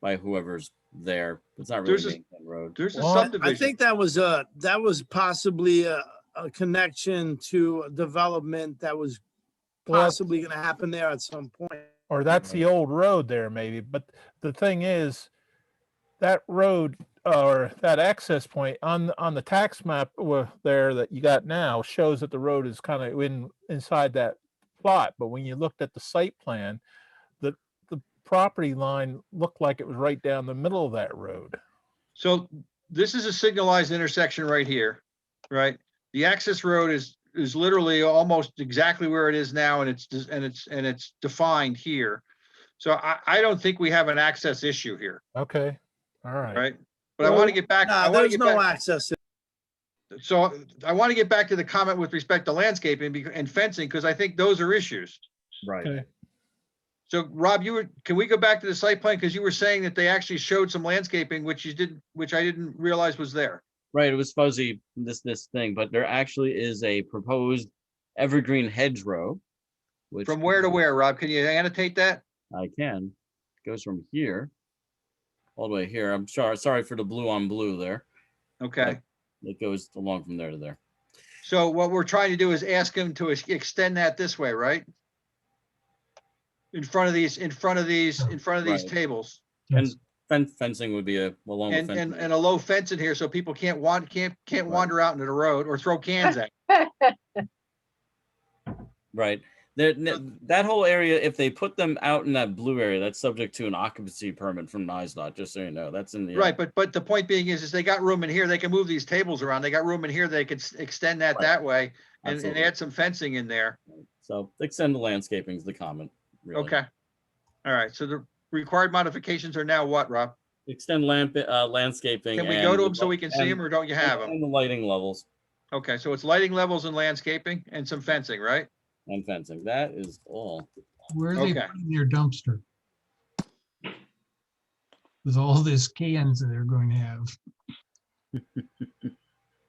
by whoever's there. It's not really There's a- Main Town Road. There's a Well, I- I subdivision. think that was a, that was possibly a, a connection to a development that was Well- possibly gonna happen there at some point. or that's the old road there maybe, but the thing is, that road or that access point on, the- on the tax map wa- there that you got now shows that the road is kind of in, inside that plot, but when you looked at the site plan, the, the property line looked like it was right down the middle of that road. So this is a signalized intersection right here, right? The access road is, is literally almost exactly where it is now and it's, dis- and it's, and it's defined here. So I, I don't think we have an access issue here, Okay, all right. right? But I want to get back, I Nah, want to there's get no back, access. so I want to get back to the comment with respect to landscaping bec- and fencing, because I think those are issues. Right. Okay. So Rob, you were, can we go back to the site plan? Because you were saying that they actually showed some landscaping, which you didn't, which I didn't realize was there. Right, it was fuzzy, this, this thing, but there actually is a proposed evergreen hedgerow. which From where to goes- where, Rob? Can you annotate that? I can, goes from here, all the way here. I'm sorry, sorry for the blue on blue there. Okay. It goes along from there to there. So what we're trying to do is ask him to ex- extend that this way, right? In front of these, in front of these, in front of these Right. tables And fen- fencing would be a, along with and, and, fencing. and a low fence in here so people can't want, can't, can't Right. wander out into the road or throw cans at. Right. There, Uh, n- that whole area, if they put them out in that blue area, that's subject to an occupancy permit from NISDOT, just so you know, that's in the. uh, Right, but, but the point being is, is they got room in here. They can move these tables around. They got room in here. They could s- extend that Right. that way and, and absolutely. add some fencing in there. So extend the landscaping is the comment. really. Okay. All right, so the required modifications are now what, Rob? Extend lamp, uh, landscaping. Can we and go to the them so li- we can see and- them or don't you have them? And the lighting levels Okay, so it's lighting levels and landscaping and some fencing, right? and fencing. That is all. Where are they Okay. putting their dumpster? With all this cans that they're going to have.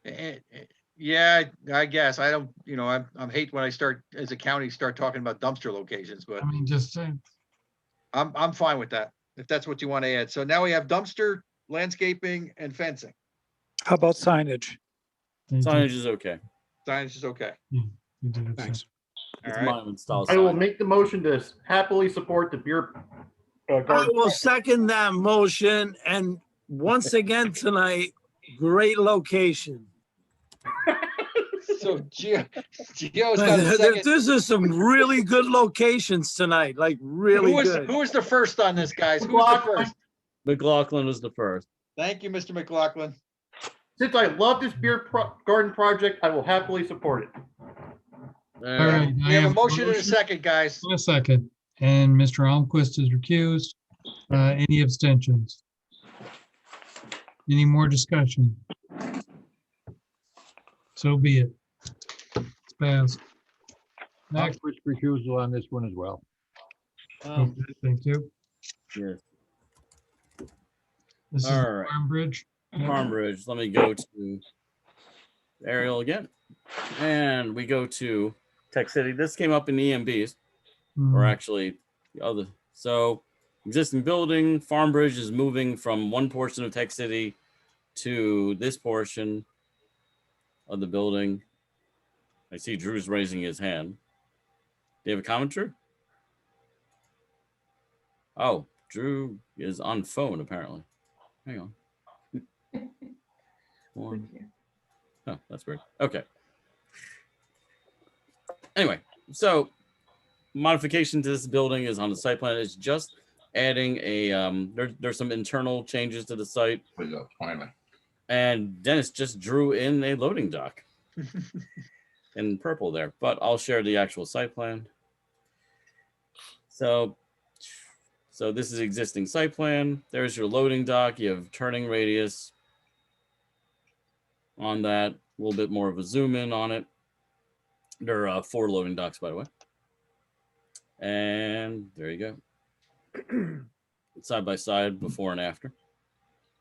Eh, eh, Yeah, I guess. I don't, you know, I'm, I'm hate when I start, as a county, start talking about dumpster locations, but I mean, just uh, saying, I'm, I'm fine with that. If that's what you want to add. So now we have dumpster, landscaping and fencing. How about signage? they did- Signage is okay. Signage is okay. they did it, so- Thanks. All It's right. monument style I will sign. make the motion to happily support the beer. uh, I garden. will second that motion and once again tonight, great location. So Gio, Gio's got a second. This is some really good locations tonight, like really Who was, good. who was the first on this, guys? Who was the McLaughlin. first? McLaughlin was the first. Thank you, Mr. McLaughlin. Since I love this beer pro- garden project, I will happily support it. All All right. right, I We have a have motion and a second, guys. and A second, and Mr. Almquist is recused. Uh, any abstentions? Any more discussion? So be it. It's passed. Next, Next, which refusal on this one as well. Um, thank you. Yes. This is All right. Farm Bridge. Farm Ridge, let me go to Ariel again. And we go to Tech City. This came up in E EMBs, Hmm. or Mm-hmm. actually the other. So existing building, Farm Bridge is moving from one portion of Tech City to this portion of the building. I see Drew's raising his hand. Do you have a comment, Drew? Oh, Drew is on phone apparently. Hang on. One. Oh, that's weird. Okay. Anyway, so modification to this building is on the site plan. It's just adding a, um, there, there's some internal changes to the site. And Dennis just drew in a loading dock in purple there, but I'll share the actual site plan. So, so this is existing site plan. There's your loading dock. You have turning radius, on that. A little bit more of a zoom in on it. There are uh, four loading docks, by the way. And there you go. side by side, before and after.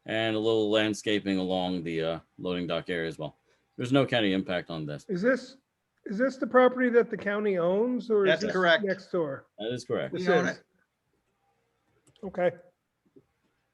And a little landscaping along the uh, loading dock area as well. There's no county impact on this. Is this, is this the property that the county owns or is That's this correct. next door? That is correct. We This own is. Okay,